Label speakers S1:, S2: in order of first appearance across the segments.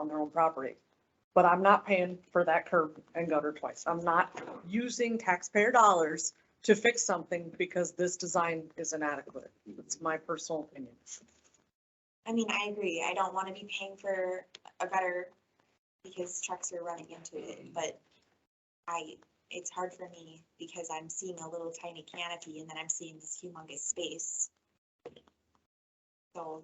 S1: on their own property. But I'm not paying for that curb and gutter twice. I'm not using taxpayer dollars to fix something because this design is inadequate. That's my personal opinion.
S2: I mean, I agree. I don't want to be paying for a gutter because trucks are running into it, but I, it's hard for me because I'm seeing a little tiny canopy and then I'm seeing this humongous space. So,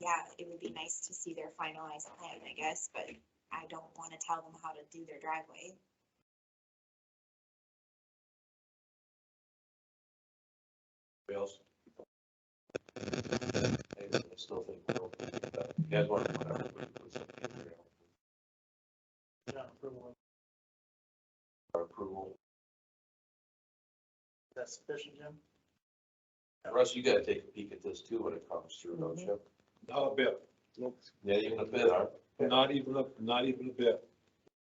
S2: yeah, it would be nice to see their finalized plan, I guess, but I don't want to tell them how to do their driveway.
S3: Anybody else? I still think we're okay with that. You guys want to put our-
S4: Yeah, approval,
S3: our approval?
S4: that's sufficient, Jim?
S3: Russ, you gotta take a peek at this too when it comes through, don't you?
S5: Not a bit, Nope.
S3: Yeah, even a bit, huh?
S5: not even a, not even a bit.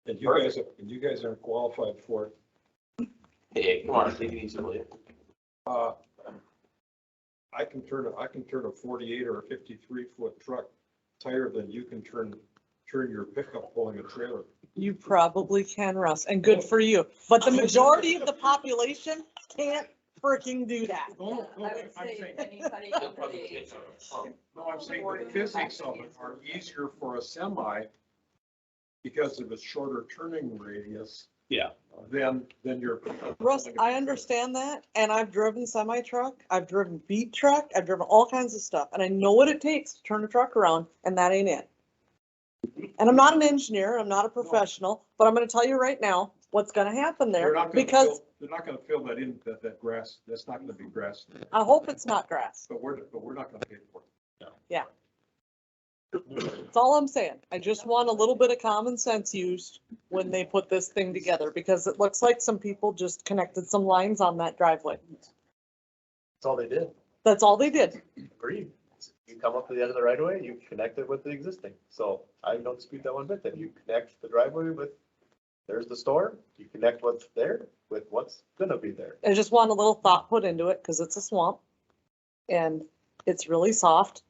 S5: And you guys, are- and you guys aren't qualified for it.
S3: Hey, come on, take it easy, will you?
S5: Uh, I can turn, a I can turn a forty-eight or a fifty-three foot truck tighter than you can turn, turn your pickup pulling a trailer.
S1: You probably can, Russ, and good for you. But the majority of the population can't freaking do that.
S5: No, no,
S6: I would
S5: I'm
S6: say
S5: saying,
S6: anybody
S3: They'll
S6: under
S3: probably
S6: the
S3: take
S6: age.
S3: it. Oh,
S5: no, I'm saying the physics of it are easier for a semi because of its shorter turning radius.
S7: Yeah.
S5: Than, than your. pickup
S1: Russ,
S5: pulling a
S1: I
S5: trailer.
S1: understand that, and I've driven semi truck, I've driven beat truck, I've driven all kinds of stuff, and I know what it takes to turn a truck around, and that ain't it. And I'm not an engineer, I'm not a professional, but I'm gonna tell you right now what's gonna happen
S5: They're
S1: there,
S5: not gonna
S1: because
S5: fill- They're not gonna fill that in, that, that grass, that's not gonna be grass,
S1: I hope it's not grass.
S5: but we're, but we're not gonna pay for it.
S1: That's all I'm saying. I just want a little bit of common sense used when they put this thing together, because it looks like some people just connected some lines on that driveway.
S8: That's all they did,
S1: That's all they did.
S8: agreed. You come up to the end of the right of way, you connect it with the existing, so I don't dispute that one bit, then you connect the driveway with, there's the store, you connect what's there with what's gonna be there.
S1: I just want a little thought put into it because it's a swamp and it's really soft.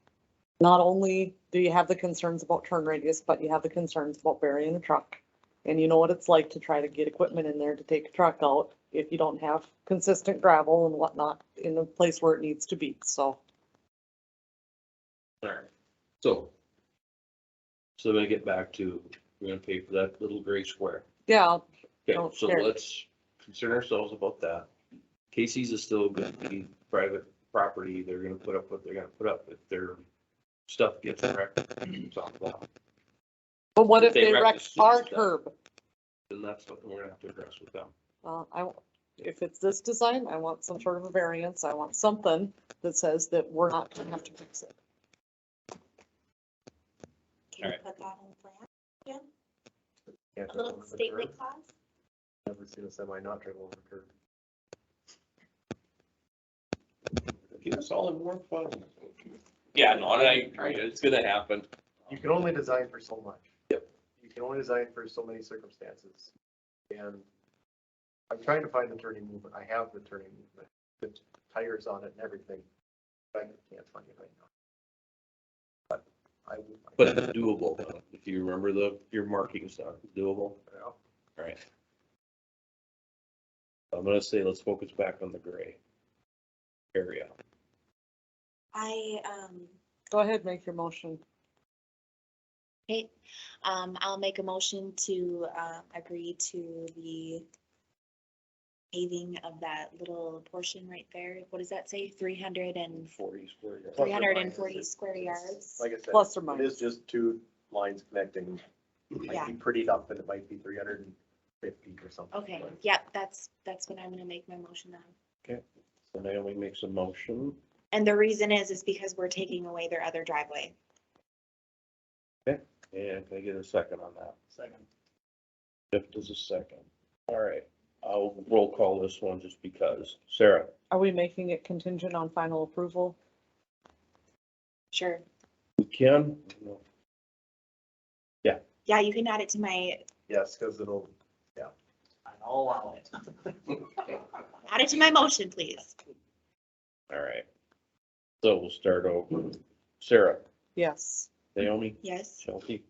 S1: Not only do you have the concerns about turn radius, but you have the concerns about burying a truck. And you know what it's like to try to get equipment in there to take a truck out if you don't have consistent gravel and whatnot in the place where it needs to be. So
S7: So. So then I get back to, we're gonna pay for that little gray square.
S1: yeah,
S7: Okay,
S1: Don't
S7: so
S1: care.
S7: let's concern ourselves about that. Casey's is still gonna be private property. They're gonna put up what they're gonna put up if their stuff gets wrecked. it's off the lot.
S1: but what if
S7: They
S1: they
S7: wreck
S1: wreck
S7: the streets
S1: our
S7: down.
S1: curb?
S7: Then that's what we're gonna have to address with them.
S1: Well, I, w- if it's this design, I want some sort of a variance. I want something that says that we're not gonna have to fix it.
S2: Can you
S7: Alright.
S2: put that in the plan?
S8: Can't
S2: A
S8: drive
S2: little
S8: over the
S2: statement
S8: curb.
S2: clause?
S8: Never seen a semi not drive over a curb.
S7: Get us all in warm fuzz. Yeah, no, and I agree. It's gonna happen.
S8: You can only design for so much.
S7: Yep.
S8: You can only design for so many circumstances. And I'm trying to find the turning movement. I have the turning movement, the tires on it and everything. But I can't find it right now. But I will find
S7: But
S8: it.
S7: it's doable, though. if you remember the, your markings are doable.
S8: Yeah.
S7: Alright. I'm gonna say let's focus back on the gray area.
S2: I, um,
S1: Go ahead, make your motion.
S2: Okay, um, I'll make a motion to, uh, agree to the paving of that little portion right there. What does that say? Three hundred and,
S7: Forty square yards.
S8: Plus
S2: three
S8: or
S2: hundred and
S8: minus,
S2: forty
S8: it's-
S2: square
S8: it's-
S2: yards?
S8: Like I said.
S1: Plus or
S8: It
S1: minus.
S8: is just two lines connecting.
S2: Yeah.
S8: Might be prettied up and it might be three hundred and fifty or something.
S2: Okay, yep, that's, that's what I'm gonna make my motion on.
S7: So Naomi makes a motion.
S2: And the reason is, is because we're taking away their other driveway.
S7: And can I get a second on that?
S4: Second.
S7: Jeff does a second. Alright, I'll roll call this one just because. Sarah,
S1: Are we making it contingent on final approval?
S2: Sure.
S7: we can?
S2: Yeah, you can add it to my,
S8: Yes, because it'll,
S4: I'll allow it.
S2: add it to my motion, please.
S7: Alright. So we'll start over. Sarah,
S1: Yes.
S7: Naomi,
S2: Yes.
S7: Chelsea,